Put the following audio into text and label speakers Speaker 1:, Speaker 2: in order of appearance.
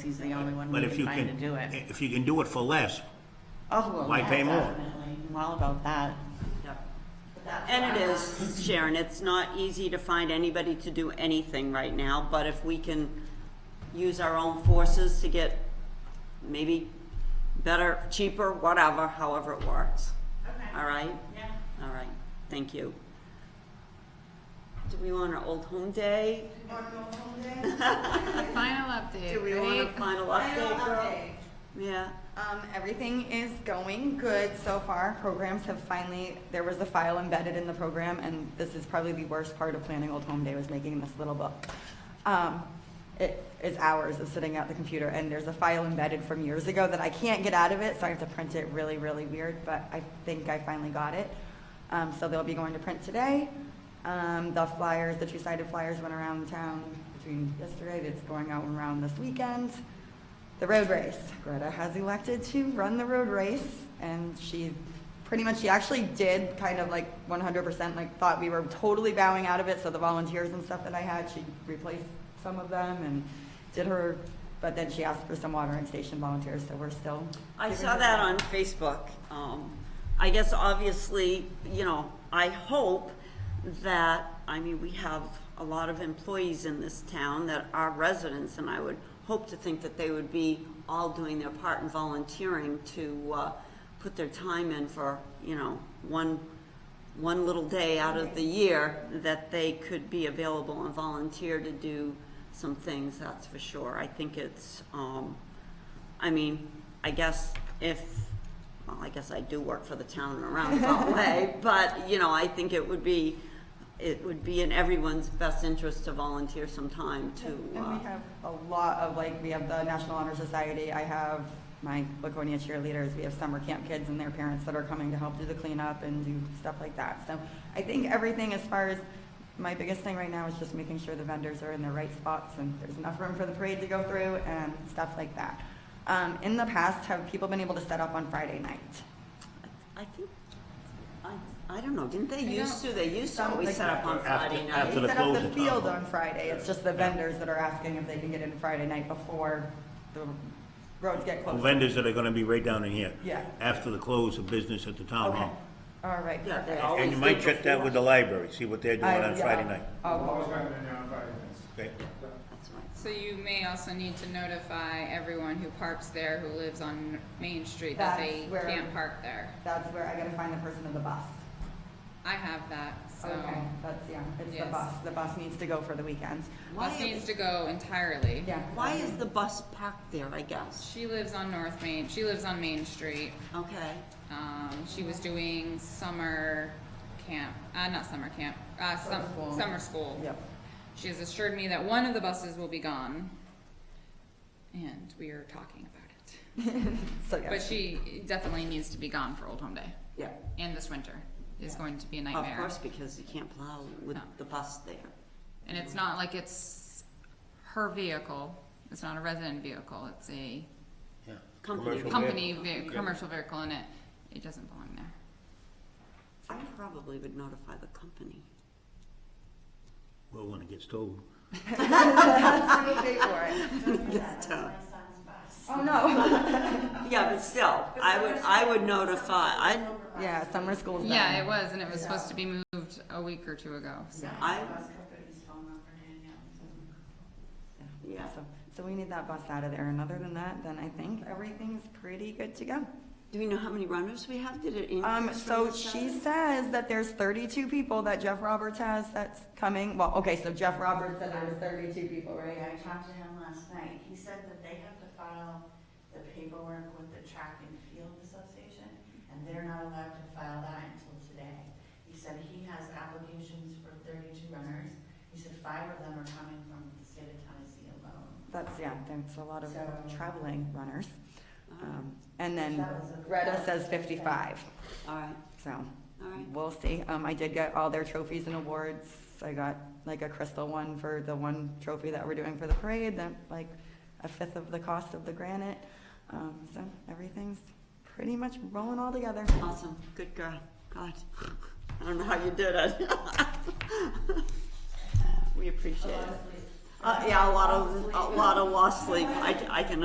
Speaker 1: he's the only one
Speaker 2: But
Speaker 1: we
Speaker 2: if you
Speaker 1: can find to
Speaker 2: can,
Speaker 1: do it.
Speaker 2: if you can do it for less,
Speaker 1: Oh, well,
Speaker 2: why
Speaker 1: yeah,
Speaker 2: pay more?
Speaker 1: definitely. I'm all about that.
Speaker 3: Yep. And it is, Sharon, it's not easy to find anybody to do anything right now, but if we can use our own forces to get maybe better, cheaper, whatever, however it works.
Speaker 1: Okay.
Speaker 3: All right?
Speaker 1: Yeah.
Speaker 3: All right, thank you. Do we want an old home day?
Speaker 4: Final update,
Speaker 3: Do we want a
Speaker 4: right?
Speaker 3: final
Speaker 5: Final
Speaker 3: update, girl?
Speaker 5: update.
Speaker 3: Yeah,
Speaker 5: Um, everything is going good so far. Programs have finally, there was a file embedded in the program, and this is probably the worst part of planning Old Home Day was making this little book. Um, it is hours of sitting at the computer, and there's a file embedded from years ago that I can't get out of it, so I have to print it really, really weird, but I think I finally got it. Um, so they'll be going to print today. Um, the flyers, the two-sided flyers went around town between yesterday, that's going out around this weekend. The road race. Greta has elected to run the road race, and she pretty much, she actually did kind of like 100%, like thought we were totally bowing out of it. So the volunteers and stuff that I had, she replaced some of them and did her, but then she asked for some watering station volunteers, so we're still.
Speaker 3: I
Speaker 5: giving
Speaker 3: saw
Speaker 5: her
Speaker 3: that on Facebook. Um, I guess obviously, you know, I hope that, I mean, we have a lot of employees in this town that are residents, and I would hope to think that they would be all doing their part and volunteering to, uh, put their time in for, you know, one, one little day out of the year that they could be available and volunteer to do some things, that's for sure. I think it's, um, I mean, I guess if, well, I guess I do work for the town in a roundabout way, but, you know, I think it would be, it would be in everyone's best interest to volunteer some time to,
Speaker 5: And we
Speaker 3: uh,
Speaker 5: have a lot of, like, we have the National Honor Society, I have my Laconia cheerleaders, we have summer camp kids and their parents that are coming to help do the cleanup and do stuff like that. So I think everything as far as, my biggest thing right now is just making sure the vendors are in the right spots and there's enough room for the parade to go through and stuff like that. Um, in the past, have people been able to set up on Friday night?
Speaker 3: I think, I, I don't know, didn't they
Speaker 4: I
Speaker 3: used to, they used to
Speaker 5: Some-
Speaker 3: always set up on
Speaker 2: After- after-
Speaker 3: Friday
Speaker 2: after
Speaker 3: night?
Speaker 2: the
Speaker 5: They set up the
Speaker 2: closing time.
Speaker 5: field on Friday, it's just the vendors that are asking if they can get in Friday night before the roads get closed.
Speaker 2: vendors that are gonna be right down in here.
Speaker 5: Yeah.
Speaker 2: After the close of business at the town
Speaker 5: Okay,
Speaker 2: hall.
Speaker 5: Oh, all right,
Speaker 3: Yeah, they
Speaker 5: perfect.
Speaker 3: all-
Speaker 2: And
Speaker 3: Always
Speaker 2: you
Speaker 3: did
Speaker 2: might check that with the library, see what they're doing
Speaker 5: I-
Speaker 2: on
Speaker 5: yeah, Oh,
Speaker 2: Friday night,
Speaker 5: I'll-
Speaker 6: I've
Speaker 5: I'll-
Speaker 6: always gotten it down Friday nights.
Speaker 2: okay?
Speaker 3: That's right.
Speaker 4: So you may also need to notify everyone who parks there, who lives on Main Street, that
Speaker 5: That's
Speaker 4: they
Speaker 5: where-
Speaker 4: can't park there.
Speaker 5: That's where I gotta find the person of the bus.
Speaker 4: I have that, so
Speaker 5: Okay, that's, yeah, it's the
Speaker 4: Yes.
Speaker 5: bus, the bus needs to go for the weekend.
Speaker 3: Why
Speaker 4: bus needs
Speaker 3: is,
Speaker 4: to go entirely.
Speaker 5: Yeah.
Speaker 3: why is the bus parked there, I guess?
Speaker 4: She lives on North Main, she lives on Main Street.
Speaker 3: Okay,
Speaker 4: Um, she was doing summer camp, uh, not summer camp, uh, sum,
Speaker 5: Summer school.
Speaker 4: summer school.
Speaker 5: Yep,
Speaker 4: She has assured me that one of the buses will be gone. And we are talking about it.
Speaker 5: so, yeah.
Speaker 4: But she definitely needs to be gone for Old Home Day.
Speaker 3: yeah,
Speaker 4: And this winter is going to be a
Speaker 3: of
Speaker 4: nightmare.
Speaker 3: course, because you can't plow with
Speaker 4: No.
Speaker 3: the bus there.
Speaker 4: And it's not like it's her vehicle. It's not a resident vehicle. It's a
Speaker 2: Yeah.
Speaker 3: Company.
Speaker 2: Commercial
Speaker 4: company
Speaker 2: vehicle.
Speaker 4: ve-
Speaker 2: Okay.
Speaker 4: commercial vehicle, and it it doesn't belong there.
Speaker 3: I probably would notify the company.
Speaker 2: Well, when it gets told.
Speaker 5: Somebody pay for it.
Speaker 3: That's tough.
Speaker 5: Oh, no.
Speaker 3: Yeah, but still, I would, I would notify, I,
Speaker 5: Yeah, summer school's done.
Speaker 4: Yeah, it was, and it was supposed to be moved a week or two ago. So
Speaker 3: I, yeah.
Speaker 5: So, so we need that bus out of there, and other than that, then I think everything's pretty good to go.
Speaker 3: Do we know how many runners we have? Did it increase?
Speaker 5: Um,
Speaker 3: from
Speaker 5: so
Speaker 3: last
Speaker 5: she
Speaker 3: Saturday?
Speaker 5: says that there's thirty-two people that Jeff Roberts has that's coming, well, okay, so Jeff Roberts said there was thirty-two people, right?
Speaker 7: I talked to him last night, he said that they have to file the paperwork with the Track and Field Association, and they're not allowed to file that until today. He said he has applications for thirty-two runners, he said five of them are coming from the state of Tennessee alone.
Speaker 5: That's, yeah, that's a lot of
Speaker 7: So-
Speaker 5: traveling runners. Um, and
Speaker 7: Which
Speaker 5: then
Speaker 7: that was a-
Speaker 5: Greta says fifty-five,
Speaker 3: All right,
Speaker 5: so
Speaker 3: all right.
Speaker 5: we'll see. Um, I did get all their trophies and awards. I got like a crystal one for the one trophy that we're doing for the parade, that like a fifth of the cost of the granite. Um, so everything's pretty much rolling all together.
Speaker 3: Awesome. Good girl. God. I don't know how you did it. We appreciate it. Uh, yeah, a lot of, a lot of lost sleep, I, I can